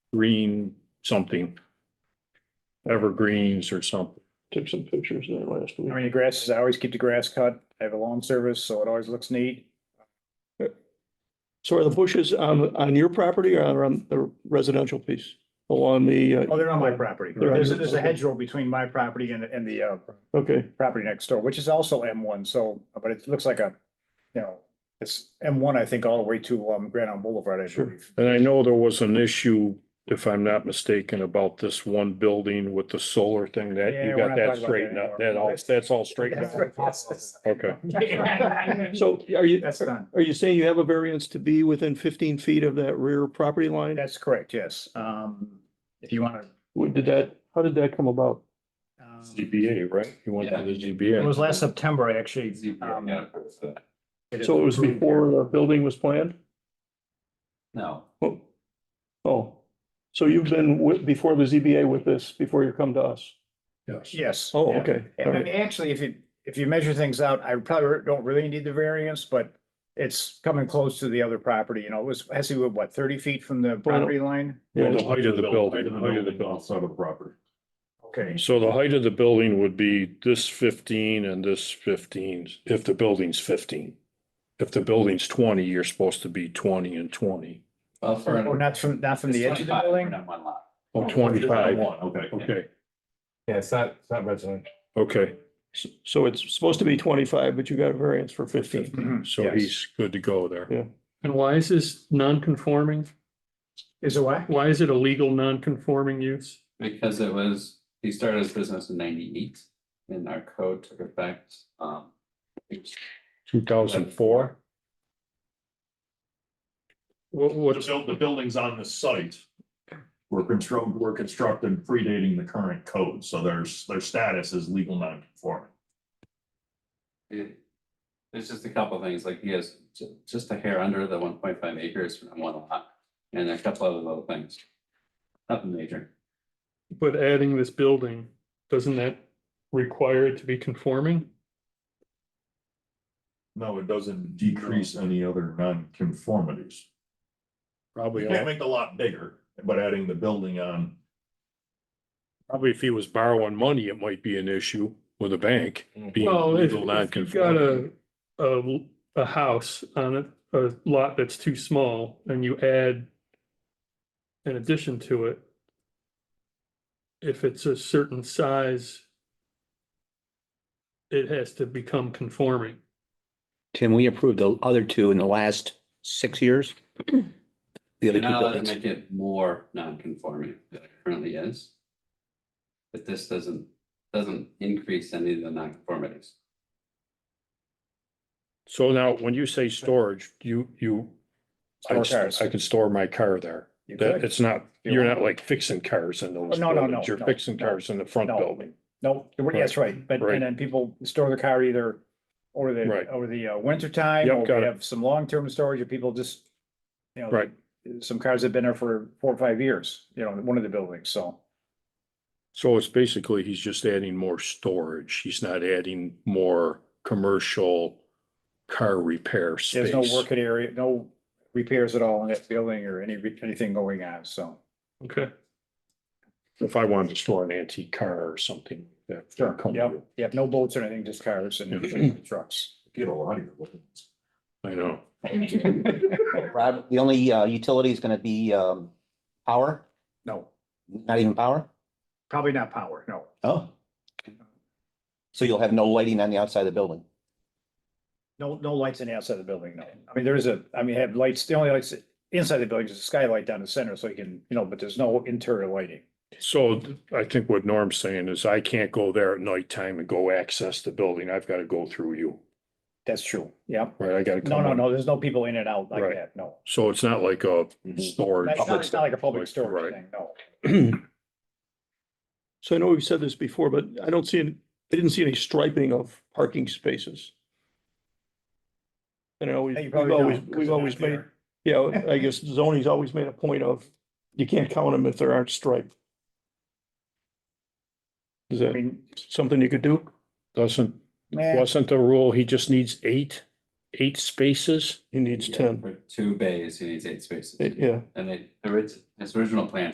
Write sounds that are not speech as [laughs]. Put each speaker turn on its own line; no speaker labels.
green something. Evergreens or something.
Took some pictures there last
I
week.
mean, the grass is, I always keep the grass cut. I have a lawn service, so it always looks neat.
So are the bushes on, on your property or on the residential piece along the, uh,
Oh, they're on my property.
They're on
There's,
your-
there's a hedgerow between my property and, and the, uh,
okay,
property next door, which is also M one, so, but it looks like a, you know, it's M one, I think, all the way to, um, Grand Island Boulevard, I
Sure.
believe.
And I know there was an issue, if I'm not mistaken, about this one building with the solar thing that
Yeah,
you
we're
got
not
that
talking about that
straightened out. That
anymore.
all, that's all straightened out. Okay.
so are you,
[laughs] That's done.
are you saying you have a variance to be within fifteen feet of that rear property line?
That's correct, yes. Um, if you wanna.
What did that, how did that come about?
um,
ZBA, right? You went to the
It
ZBA.
was last September, I actually. um, it
So it was
approved.
before the building was planned?
No,
Oh, Oh. so you've been with, before the ZBA with this, before you come to us?
Yes.
Yes.
Oh,
yeah.
okay. all
And I
right.
mean, actually, if you, if you measure things out, I probably don't really need the variance, but it's coming close to the other property, you know, it was, has to be what, thirty feet from the property line?
Well,
Yeah,
the height of the building, the height of the building.
outside of property.
Okay,
So the height of the building would be this fifteen and this fifteen, if the building's fifteen. If the building's twenty, you're supposed to be twenty and twenty.
Well, for.
or Oh, not from, not from the edge of the building?
Not one lot.
Oh, twenty-five,
One, okay.
okay,
Yeah, it's not, it's not resident.
okay.
so it's supposed to be twenty-five, but you got a variance for fifteen.
Mhm,
So
yes.
he's good to go there.
And why is this non-conforming?
Is it what?
Why is it a legal non-conforming use?
Because it was, he started his business in ninety-eight and our code took effect, um.
Two thousand four?
What,
But the
what,
buil- the buildings on the site were constructed, were constructed predating the current code, so there's, their status is legal non-conforming.
it- There's just a couple of things, like he has ju- just a hair under the one point five acres from one lot and a couple other little things. Nothing major.
but adding this building, doesn't that require it to be conforming?
No, it doesn't decrease any other non-conformities.
Probably,
You can't make the lot bigger, but adding the building on,
probably if he was borrowing money, it might be an issue with a bank.
Mm-hmm.
being
Well, if
legal
if you've got
non-conforming.
a, a, a house on a, a lot that's too small and you add an addition to it, if it's a certain size, it has to become conforming.
Tim, we approved the other two in the last six years. The other
You're
two
not allowed to
buildings.
make it more non-conforming than it currently is. But this doesn't, doesn't increase any of the non-conformities.
So now, when you say storage, you, you, I,
Store cars.
I can store my car there.
You
That,
could.
it's not,
You
you're
want-
not like fixing cars in those.
Oh, no, no,
buildings.
no,
You're
no,
fixing
no,
cars in the front
no.
building.
No, you're- that's right, but,
Right.
and then people store the car either over
Right.
the, over the uh, winter time,
Yep,
or
got
we
it.
have some long-term storage, or people just, you know.
Right.
Some cars have been there for four or five years, you know, in one of the buildings, so.
So it's basically, he's just adding more storage. He's not adding more commercial car repair
There's no
space.
working area, no repairs at all in that building or any, anything going on, so.
Okay.
If I wanted to store an antique car or something. that would
Sure,
come
yep,
with
yep, no boats or anything, just cars and trucks.
get a lot of your buildings.
it. I know.
Rob, the only uh, utility is going to be um, power,
No,
not even power.
probably not power, no.
Oh. So you'll have no lighting on the outside of the building.
No, no lights on the outside of the building, no. I mean, there is a, I mean, have lights, the only lights inside the building is a skylight down the center, so you can, you know, but there's no interior lighting.
So th- I think what Norm's saying is I can't go there at nighttime and go access the building. I've got to go through you,
That's true, yeah.
right? I got to.
No, no, no, there's no people in and out like
Right.
that, no.
So it's not like a
Mhm.
storage.
It's Mm-hmm. not it's not like a public
Right.
storage thing, no.
So I know we've said this before, but I don't see, any- I didn't see any striping of parking spaces. And I always,
Hey, you
we've
probably don't,
always,
'cause
we've
they're
always
not there.
made, yeah,
[laughs]
I guess zoning's always made a point of, you can't count them if they aren't striped. Is
I
that
mean,
something you could do?
Doesn't,
man,
wasn't the rule, he just needs eight, eight spaces?
He needs
Yeah,
ten,
for Two bays, he needs eight spaces.
yeah.
And it, the orig- his original plan